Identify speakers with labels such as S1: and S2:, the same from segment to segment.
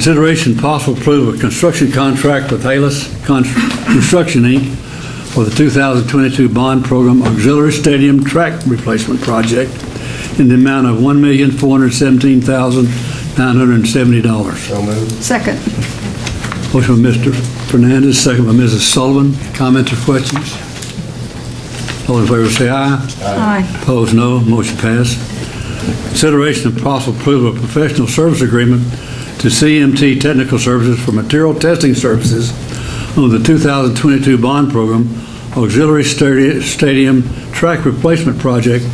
S1: Consideration possible approval of construction contract with Halas Con- Construction, Inc. for the 2022 bond program auxiliary stadium track replacement project in the amount of $1,417,970.
S2: So moved.
S3: Second.
S1: Motion by Mr. Fernandez, second by Mrs. Sullivan. Comments or questions? All in favor say aye.
S3: Aye.
S1: Opposed, no. Motion passed. Consideration of possible approval of professional service agreement to CMT Technical Services for material testing services under the 2022 bond program auxiliary stadi- stadium track replacement project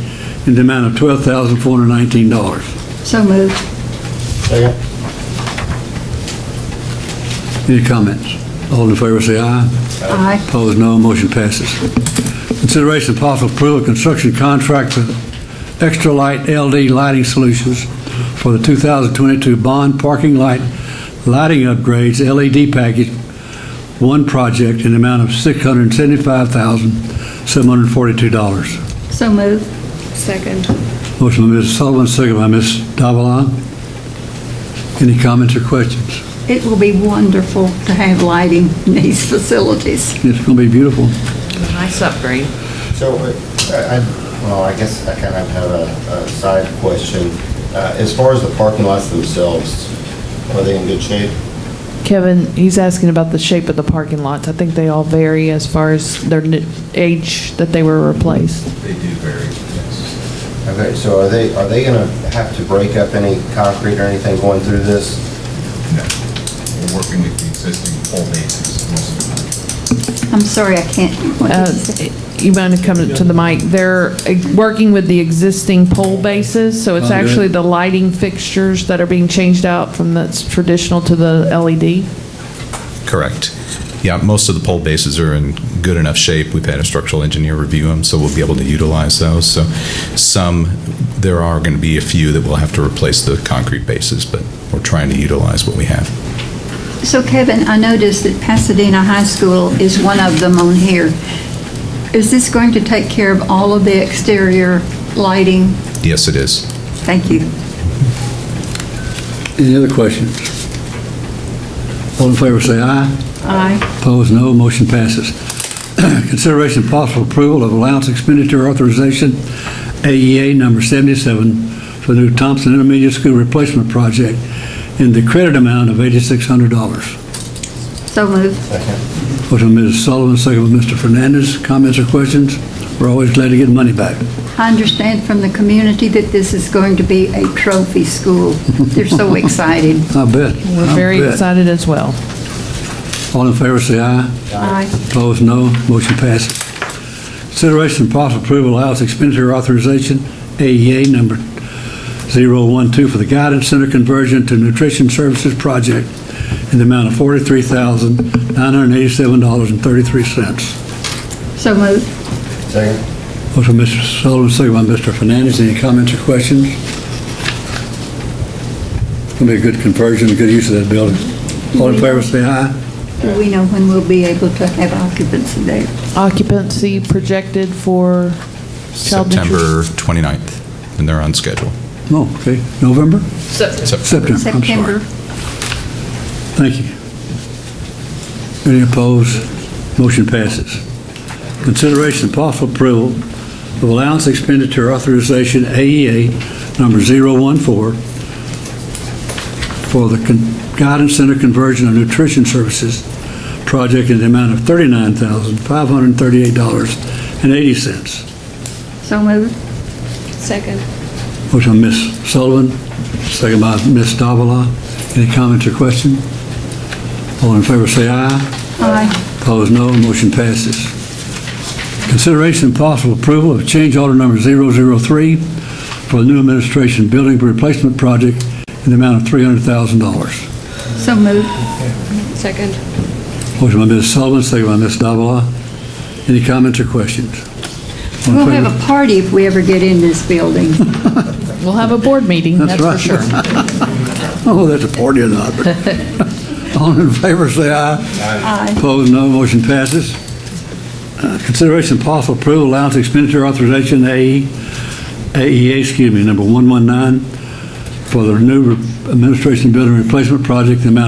S1: in the amount of $12,419.
S3: So moved.
S2: Second.
S1: Any comments? All in favor say aye.
S3: Aye.
S1: Opposed, no. Motion passes. Consideration of possible approval of construction contract with Extra Light LD Lighting Solutions for the 2022 Bond Parking Light Lighting Upgrades LED Package 1 project in the amount of $675,742.
S3: So moved. Second.
S1: Motion by Mrs. Sullivan, second by Ms. Davalon. Any comments or questions?
S3: It will be wonderful to have lighting in these facilities.
S1: It's going to be beautiful.
S4: Nice upgrade.
S2: So, uh, I, I- well, I guess I kind of have a a side question. Uh, As far as the parking lots themselves, are they in good shape?
S5: Kevin, he's asking about the shape of the parking lots. I think they all vary as far as their n- age that they were replaced.
S6: They do vary, yes.
S2: Okay, so are they, are they going to have to break up any concrete or anything going through this?
S6: No, We're working with the existing pole bases most of the time.
S3: I'm sorry, I can't. what did
S5: Uh,
S3: you say?
S5: You might have come to the mic. They're uh, working with the existing pole bases, so it's
S1: Oh, good.
S5: actually the lighting fixtures that are being changed out from that's traditional to the E LED.
S7: Correct. Yeah, most of the pole bases are in good enough shape. We've had a structural engineer review them, so we'll be able to utilize those. So some, there are going to be a few that will have to replace the concrete bases, but we're trying to utilize what we have.
S3: So Kevin, I noticed that Pasadena High School is one of them on here. Is this going to take care of all of the exterior lighting?
S7: Yes, it is.
S3: Thank you.
S1: Any other questions? All in favor say aye.
S3: Aye.
S1: Opposed, no. Motion passes. Consideration and possible approval of allowance expenditure authorization, AEA number 77, for the new Thompson Intermediate School Replacement Project in the credit amount of $8,600. Motion
S3: So moved.
S2: Second.
S1: by Mrs. Sullivan, second by Mr. Fernandez. Comments or questions? We're always glad to get money back.
S3: I understand from the community that this is going to be a trophy school. They're so excited.
S1: I bet.
S5: We're
S1: I
S5: very
S1: bet.
S5: excited as well.
S1: All in favor, say aye.
S3: Aye.
S1: Opposed, no. Motion passes. Consideration and possible approval of allowance expenditure authorization, AEA number 012, for the Guidance Center conversion to Nutrition Services Project in the amount of $43,987.33.
S3: So moved.
S2: Second.
S1: Motion by Mr. Sullivan, second by Mr. Fernandez. Any comments or questions? It's going to be a good conversion, a good use of that building. All in favor, say aye.
S3: Do we know when we'll be able to have occupancy there?
S5: Occupancy projected for child
S7: September 29th, and they're on schedule.
S1: No, Oh, okay. November? September, I'm sorry.
S3: September?
S1: Thank you. Any opposed? Motion passes. Consideration and possible approval of allowance expenditure authorization AEA number 014 for the Con- Guidance Center Conversion of Nutrition Services project in the amount of $39,538.80.
S3: So moved. Second.
S1: Motion by Ms. Sullivan, second by Ms. Davila. Any comments or questions? All in favor, say aye.
S3: Aye.
S1: Opposed, no. Motion passes. Consideration and possible approval of change order number 003 for the new administration building replacement project in the amount of $300,000.
S3: So moved. Second.
S1: Motion by Ms. Sullivan, second by Ms. Davila. Any comments or questions? All in
S3: We'll
S1: favor?
S3: have a party if we ever get in this building.
S5: We'll have a board meeting,
S1: That's
S5: that's for
S1: right.
S5: sure.
S1: Oh, that's a party or not. All in favor, say aye.
S3: Aye.
S1: Opposed, no. Motion passes. Uh, Consideration and possible approval allowance E, expenditure authorization, AE, AEA, excuse me, number 119, for the new administration building replacement project, the amount